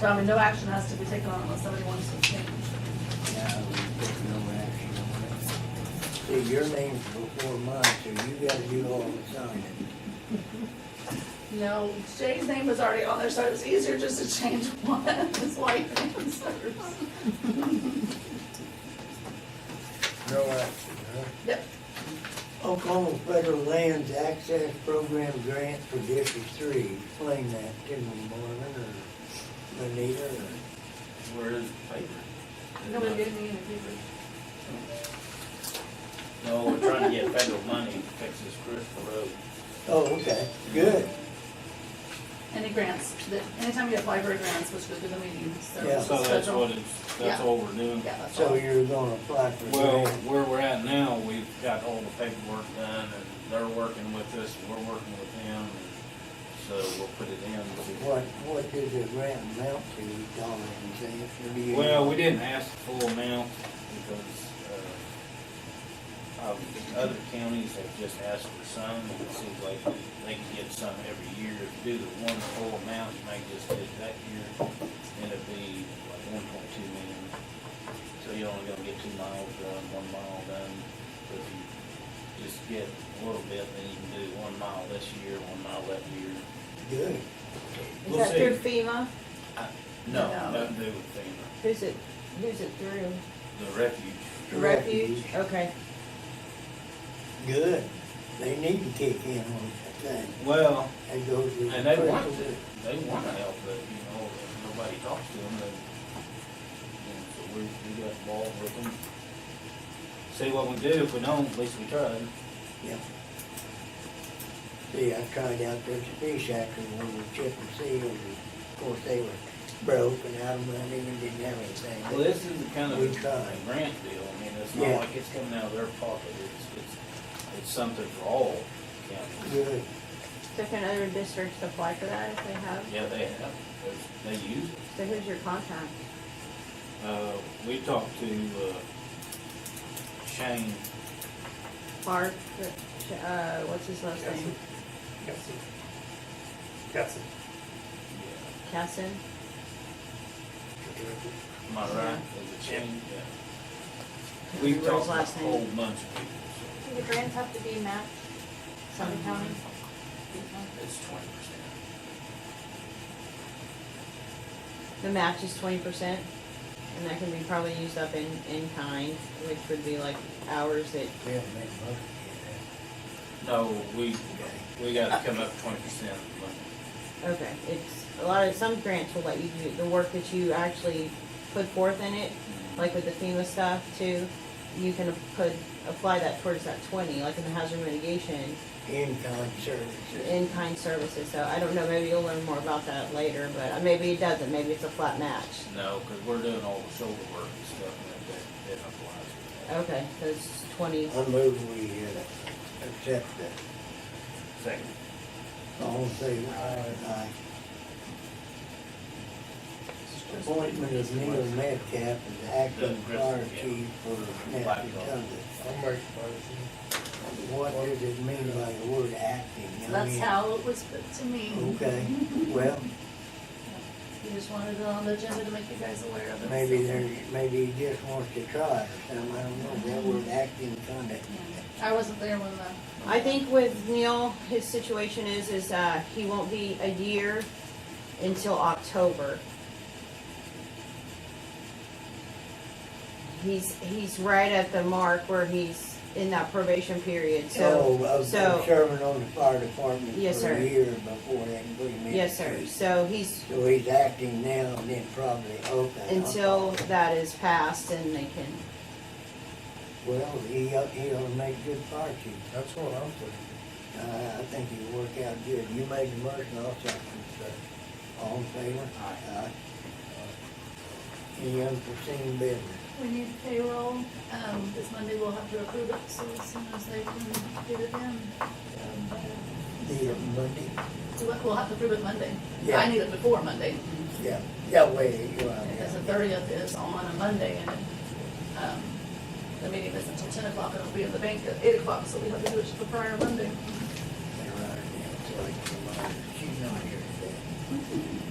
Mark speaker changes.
Speaker 1: So I mean, no action has to be taken on unless somebody wants to change.
Speaker 2: Now, we took no action on it. See, your name's before mine, so you gotta do all the signing.
Speaker 1: No, Jay's name was already on there, so it was easier just to change one, his wife and his hers.
Speaker 2: No action, huh?
Speaker 1: Yep.
Speaker 2: Oklahoma Federal Lands Access Program Grant for District Three. Explain that to me, Marvin or Anita or.
Speaker 3: Where is the paper?
Speaker 1: Nobody gave me any papers.
Speaker 3: No, we're trying to get federal money to fix this Crystal Road.
Speaker 2: Oh, okay, good.
Speaker 1: Any grants, that, anytime you apply for grants, which goes to the meeting, so.
Speaker 2: Yeah.
Speaker 3: So that's what it's, that's
Speaker 1: Yeah.
Speaker 3: all we're doing.
Speaker 1: Yeah, that's
Speaker 2: So
Speaker 1: all.
Speaker 2: you're gonna apply for
Speaker 3: Well,
Speaker 2: grant?
Speaker 3: where we're at now, we've got all the paperwork done and they're working with us, and we're working with them. So we'll put it in.
Speaker 2: What, what does the grant amount to, Dollar and cents? or do you-
Speaker 3: Well, we didn't ask the full amount because, uh, um, other counties have just asked for some. and It seems like they can get some every year. If you do the one full amount, you might just get it that year. And it'd be like one point two million. So you're only gonna get two miles done, one mile done. But if you just get a little bit, then you can do one mile this year, one mile that year.
Speaker 2: Good.
Speaker 4: Is
Speaker 3: We'll
Speaker 4: that
Speaker 3: see.
Speaker 4: through FEMA?
Speaker 3: No,
Speaker 1: No.
Speaker 3: nothing to do with FEMA,
Speaker 4: Who's it, who's it through?
Speaker 3: the refuge.
Speaker 2: The
Speaker 4: Refuge? Okay.
Speaker 2: Good. They need to kick in on that thing.
Speaker 3: Well,
Speaker 2: That goes with.
Speaker 3: And they
Speaker 2: the
Speaker 3: want
Speaker 2: principle.
Speaker 3: to, they want to help, but, you know, if nobody talks to them, then, you know, so we, we got involved with them. See what we do, if we don't, at least we tried.
Speaker 2: Yeah. See, I tried out there to fish after one with Chip and Seal, and of course, they were broke and out of money and didn't have anything.
Speaker 3: Well, this is the kind of
Speaker 2: We tried.
Speaker 3: a grant deal, I mean, it's
Speaker 2: Yeah.
Speaker 3: not like it's coming out of their pocket, it's, it's, it's something for all counties.
Speaker 2: Good,
Speaker 4: So can other districts apply for that if they have?
Speaker 3: Yeah, they have, They- they use it.
Speaker 4: So who's your contact?
Speaker 3: Uh, we talked to, uh, Shane,
Speaker 4: Clark, uh, what's his last name?
Speaker 5: Cassie. Cassie.
Speaker 3: yeah,
Speaker 4: Casson?
Speaker 3: am I right, is it Shane? Yeah. We
Speaker 4: Remember
Speaker 3: talked
Speaker 4: his
Speaker 3: to a
Speaker 4: last name?
Speaker 3: whole bunch of people, so.
Speaker 4: Do the grants have to be matched? Um, Some county?
Speaker 3: It's twenty percent.
Speaker 4: The match is twenty percent, and that can be probably used up in, in kind, which would be like hours that,
Speaker 2: we haven't made a bucket
Speaker 3: No, we, we
Speaker 4: Uh.
Speaker 3: gotta come up twenty percent.
Speaker 4: okay, it's, a lot of, some grants will let you do the work that you actually put forth in it, like with the FEMA stuff too, you can put, apply that towards that twenty, like in the hazard mitigation,
Speaker 2: yet. In-kind services.
Speaker 4: in-kind services, so I don't know, maybe you'll learn more about that later, but uh, maybe it doesn't, maybe it's a flat match.
Speaker 3: No, cause we're doing all the shoulder work and stuff, and that, that applies.
Speaker 4: Okay, so it's twenty,
Speaker 2: I move we uh, accept that.
Speaker 3: Second.
Speaker 2: All in favor? Aye. Appointment of Neil Metcalf as acting
Speaker 3: The Grizzly,
Speaker 2: fire
Speaker 3: yeah.
Speaker 2: chief for
Speaker 3: Black
Speaker 2: Nathan
Speaker 3: Dog.
Speaker 2: Tundra.
Speaker 5: I'll make a
Speaker 2: What does it mean by the word acting? I
Speaker 1: That's
Speaker 2: mean-
Speaker 1: how it was put to me.
Speaker 2: Okay, well,
Speaker 1: We just wanted it on the agenda to make you guys aware of it.
Speaker 2: maybe there, maybe he just wants to try it or something, I don't know, that word acting kinda.
Speaker 1: I wasn't there when the.
Speaker 4: I think with Neil, his situation is, is, uh, he won't be a year until October. He's, he's right at the mark where he's in that probation period, so,
Speaker 2: Oh, of of
Speaker 4: so,
Speaker 2: serving on the fire department
Speaker 4: Yes,
Speaker 2: for
Speaker 4: sir.
Speaker 2: a year before they can put him in.
Speaker 4: yes, sir, so he's,
Speaker 2: So he's acting now and then probably, okay.
Speaker 4: until that is passed and they can,
Speaker 2: Well, he, ought- he ought to make good fire chief,
Speaker 5: That's what I'm thinking.
Speaker 2: uh, I think he'll work out good, you made the motion, I'll second it. All in favor? Aye. Any unforeseen business?
Speaker 1: We need payroll, um, this Monday we'll have to approve it, so as soon as they can get it in. um,
Speaker 2: The Monday?
Speaker 1: so we- We'll have to approve it Monday. I
Speaker 2: Yeah.
Speaker 1: need it before Monday,
Speaker 2: Yeah, yeah, wait, you are,
Speaker 1: because
Speaker 2: yeah.
Speaker 1: the thirtieth is on a Monday and, um, the meeting isn't until ten o'clock, and it'll be in the bank at eight o'clock, so we have to do it the prior Monday.
Speaker 2: uh, She's not here today.